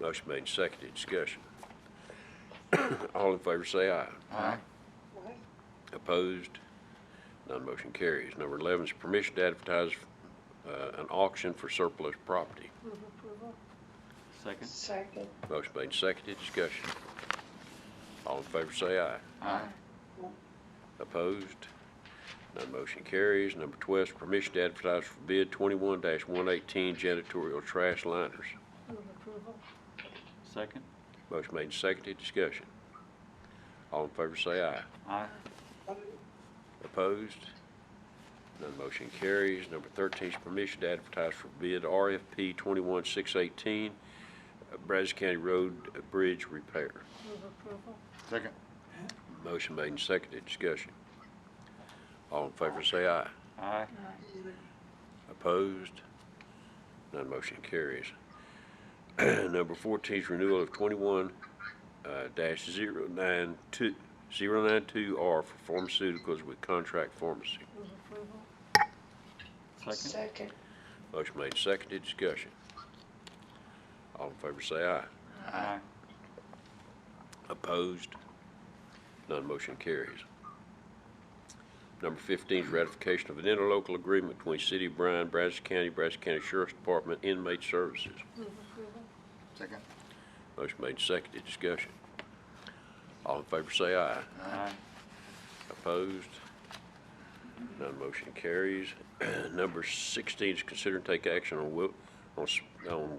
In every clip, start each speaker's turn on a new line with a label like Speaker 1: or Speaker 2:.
Speaker 1: Motion made, and seconded, discussion. All in favor say aye.
Speaker 2: Aye.
Speaker 1: Opposed? None motion carries. Number 11 is permission to advertise uh, an auction for surplus property.
Speaker 3: Move approval.
Speaker 2: Second.
Speaker 3: Second.
Speaker 1: Motion made, and seconded, discussion. All in favor say aye.
Speaker 2: Aye.
Speaker 1: Opposed? None motion carries. Number 12 is permission to advertise for bid 21-118 janitorial trash liners.
Speaker 3: Move approval.
Speaker 2: Second.
Speaker 1: Motion made, and seconded, discussion. All in favor say aye.
Speaker 2: Aye.
Speaker 1: Opposed? None motion carries. Number 13 is permission to advertise for bid RFP 21618, uh, Brazos County Road Bridge Repair.
Speaker 3: Move approval.
Speaker 2: Second.
Speaker 1: Motion made and seconded. Discussion. All in favor say aye.
Speaker 2: Aye.
Speaker 1: Opposed? None motion carries. Number 14 is renewal of 21 uh, dash 092 092R for pharmaceuticals with contract pharmacy.
Speaker 3: Move approval.
Speaker 2: Second.
Speaker 3: Second.
Speaker 1: Motion made, seconded, discussion. All in favor say aye.
Speaker 2: Aye.
Speaker 1: Opposed? None motion carries. Number 15 is ratification of an interlocal agreement between City of Bryan, Brazos County, Brazos County Sheriff's Department, Inmate Services.
Speaker 3: Move approval.
Speaker 4: Second.
Speaker 1: Motion made, seconded, discussion. All in favor say aye.
Speaker 2: Aye.
Speaker 1: Opposed? None motion carries. Number 16 is consider and take action on Wil, on s- on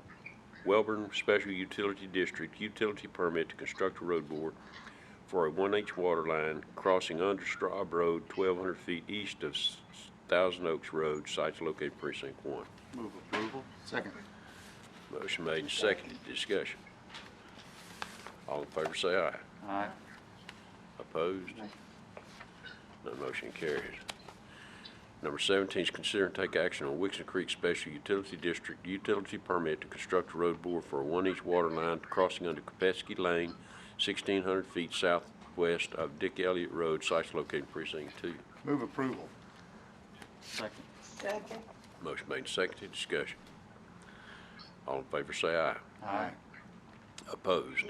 Speaker 1: Welborn Special Utility District Utility Permit to construct a road board for a one-inch water line crossing under Straub Road, 1,200 feet east of S- Thousand Oaks Road, sites located precinct one.
Speaker 2: Move approval.
Speaker 4: Second.
Speaker 1: Motion made and seconded. Discussion. All in favor say aye.
Speaker 2: Aye.
Speaker 1: Opposed? None motion carries. Number 17 is consider and take action on Wixon Creek Special Utility District utility permit to construct a road bore for a one-inch water line crossing under Kopetsky Lane, 1,600 feet southwest of Dick Elliott Road, sites located precinct 2.
Speaker 4: Move approval.
Speaker 2: Second.
Speaker 3: Second.
Speaker 1: Motion made and seconded, discussion. All in favor say aye.
Speaker 2: Aye.
Speaker 1: Opposed?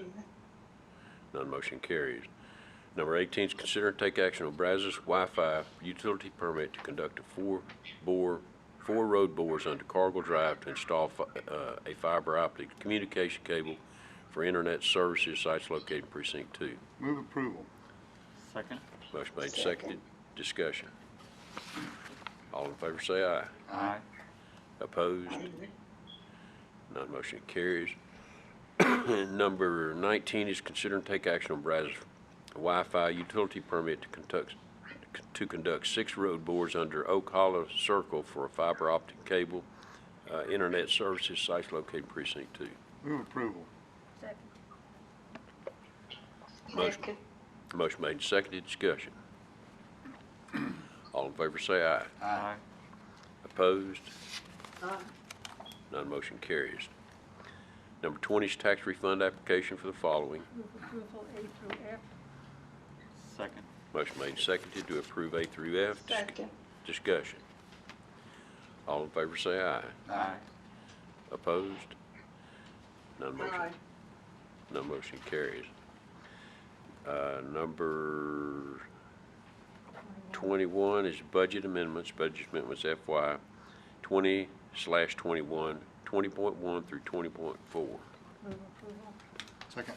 Speaker 1: None motion carries. Number 18 is consider and take action on Brazos Wi-Fi utility permit to conduct a four-bore, four road bores under Cargill Drive to install fi- uh, a fiber optic communication cable for internet services sites located in precinct two.
Speaker 4: Move approval.
Speaker 2: Second.
Speaker 1: Motion made, seconded. Discussion. All in favor say aye.
Speaker 2: Aye.
Speaker 1: Opposed? None motion carries. Number 19 is consider and take action on Brazos Wi-Fi utility permit to conduct, to conduct six road bores under Oak Hollow Circle for a fiber optic cable, uh, internet services sites located precinct two.
Speaker 4: Move approval.
Speaker 3: Second.
Speaker 1: Motion.
Speaker 3: Second.
Speaker 1: Motion made, and seconded, discussion. All in favor say aye.
Speaker 2: Aye.
Speaker 1: Opposed?
Speaker 3: Aye.
Speaker 1: None motion carries. Number 20 is tax refund application for the following.
Speaker 3: Move approval A through F.
Speaker 2: Second.
Speaker 1: Motion made and seconded to approve A through F. Dis-
Speaker 3: Second.
Speaker 1: Discussion. All in favor say aye.
Speaker 2: Aye.
Speaker 1: Opposed? None motion, none motion carries. Uh, Number 21 is budget amendments. Budget amendments FY 20 slash 21, 20.1 through 20.4.
Speaker 3: Move approval.
Speaker 4: Second.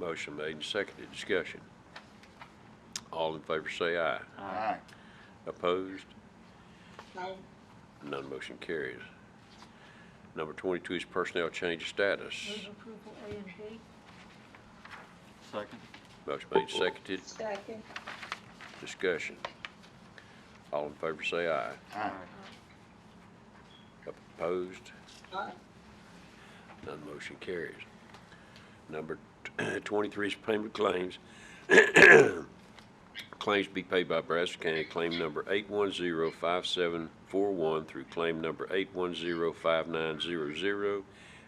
Speaker 1: Motion made and seconded. Discussion. All in favor say aye.
Speaker 2: Aye.
Speaker 1: Opposed?
Speaker 3: Aye.
Speaker 1: None motion carries. Number 22 is personnel change of status.
Speaker 3: Move approval A and B.
Speaker 2: Second.
Speaker 1: Motion made, seconded,
Speaker 3: Second.
Speaker 1: discussion. All in favor say aye.
Speaker 4: Aye.
Speaker 1: Opposed?
Speaker 3: Aye.
Speaker 1: None motion carries. Number t- 23 is payment claims. Claims to be paid by Brazos County, claim number 8105741 through claim number 8105900,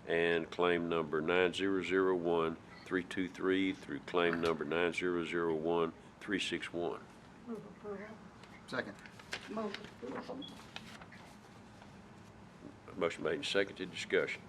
Speaker 1: and claim number 9001323 through claim number 9001361.
Speaker 3: Move approval.
Speaker 4: Second.
Speaker 3: Move approval.
Speaker 1: Motion made and seconded, discussion.